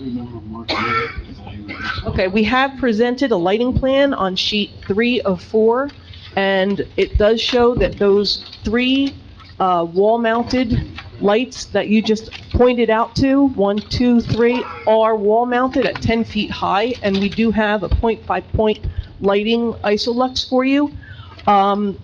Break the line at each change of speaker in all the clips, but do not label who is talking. remember Mark.
Okay, we have presented a lighting plan on sheet three of four, and it does show that those three uh, wall-mounted lights that you just pointed out to, one, two, three, are wall-mounted at 10 feet high, and we do have a point-by-point lighting isolux for you. Um,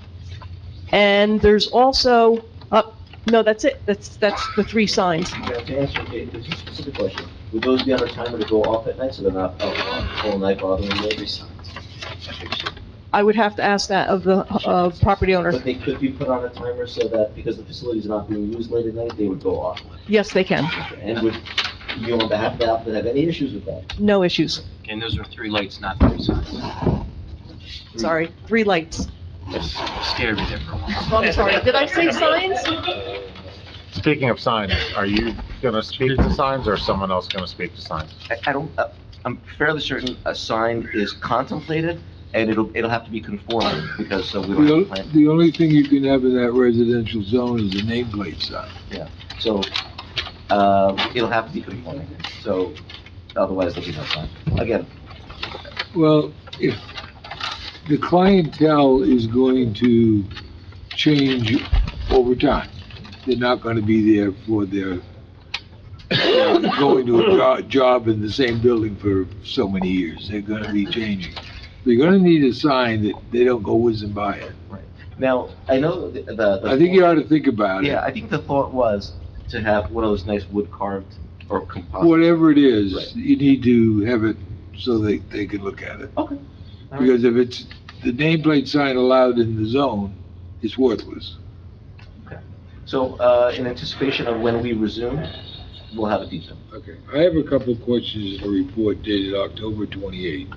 And there's also, uh, no, that's it, that's, that's the three signs.
To answer a a specific question, would those be on a timer to go off at night so they're not out all night bothering neighbors?
I would have to ask that of the, of property owner.
But they could be put on a timer so that because the facility's not being used late at night, they would go off.
Yes, they can.
And would you on behalf of the applicant have any issues with that?
No issues.
And those are three lights, not three signs.
Sorry, three lights.
Scared me there for a while.
Oh, I'm sorry, did I say signs?
Speaking of signs, are you gonna speak to signs or is someone else gonna speak to signs?
I, I don't, uh, I'm fairly certain a sign is contemplated and it'll, it'll have to be conforming because so we
The o- the only thing you can have in that residential zone is a nameplate sign.
So, um it'll have to be conforming, so otherwise there'll be no sign. Again,
Well, if the clientele is going to change over time, they're not gonna be there for their, uh, going to a jo- job in the same building for so many years, they're gonna be changing. They're gonna need a sign that they don't go whizzing by it.
now, I know the, the.
I think you ought to think about it.
Yeah, I think the thought was to have one of those nice wood carved or composite.
Whatever it is,
Right.
you need to have it so they, they can look at it.
Okay. All right.
Because if it's, the nameplate sign allowed in the zone, it's worthless.
So, uh, in anticipation of when we resume, we'll have a detail.
Okay, I have a couple of questions in the report dated October 28.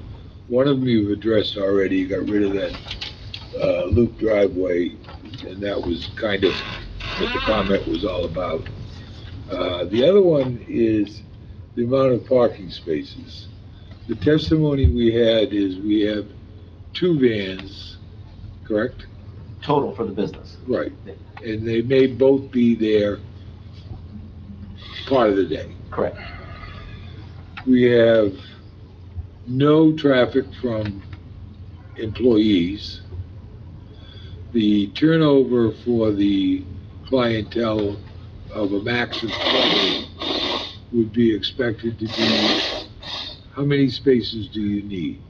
One of them you've addressed already, you got rid of that uh, loop driveway, and that was kind of what the comment was all about. Uh, The other one is the amount of parking spaces. The testimony we had is we have two vans, correct?
Total for the business.
Right, and they may both be there part of the day.
Correct.
We have no traffic from employees. The turnover for the clientele of a max of 20 would be expected to be, how many spaces do you need?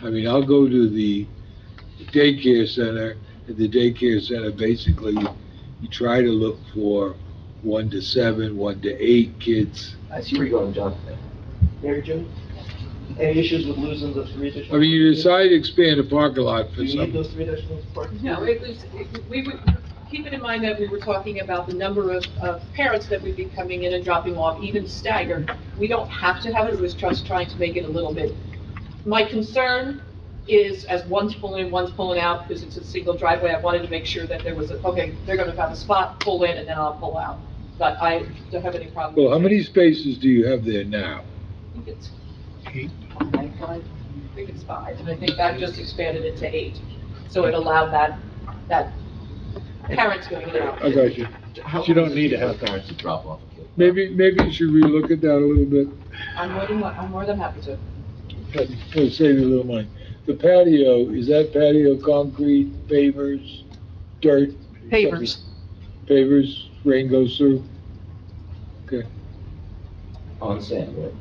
I mean, I'll go to the daycare center, and the daycare center, basically, you try to look for one to seven, one to eight kids.
I see where you're going, John. Mary Jo, any issues with losing the three additional?
I mean, you decide to expand a parking lot
Do
for
you need
some,
those three additional parking?
No, it was, it- we would, keep it in mind that we were talking about the number of, of parents that would be coming in and dropping off, even staggered. We don't have to have it, it was just trying to make it a little bit. My concern is as one's pulling in, one's pulling out, because it's a single driveway, I wanted to make sure that there was, a okay, they're gonna have a spot, pull in, and then I'll pull out. But I don't have any problem.
well, how many spaces do you have there now?
I think it's five, I think it's five, and I think that just expanded it to eight. So it allowed that, that parents going in and out.
I got you.
How
You don't
long does it
need
take
to have-
for Parents to drop off a kid.
Maybe, maybe you should relook at that a little bit,
I'm more than, I'm more than happy to.
but it'll save you a little money. The patio, is that patio concrete, pavers, dirt?
Pavers.
Pavers, rain goes through? Okay,
On sand, right?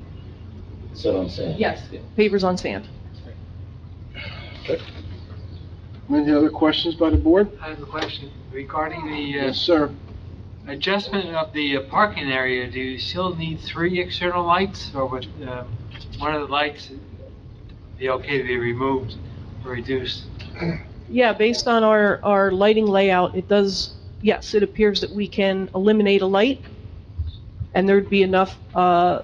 So on sand.
Yes,
Pavers on sand.
Any other questions by the board?
I have a question regarding the
Yes, sir.
uh, adjustment of the uh, parking area. Do you still need three external lights or would um, one of the lights be okay to be removed or reduced?
Yeah, based on our, our lighting layout, it does, yes, it appears that we can eliminate a light, and there'd be enough uh,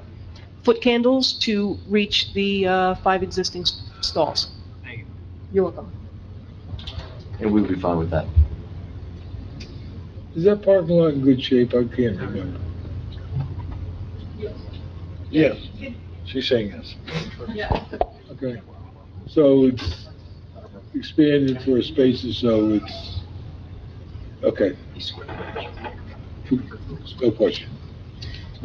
foot candles to reach the uh, five existing s- stalls.
Thank you.
You're welcome.
And we'll be fine with that.
is that parking lot in good shape? I can't remember. Yes, she's saying yes.
yes.
Okay, so it's expanded for spaces, so it's, okay. No question.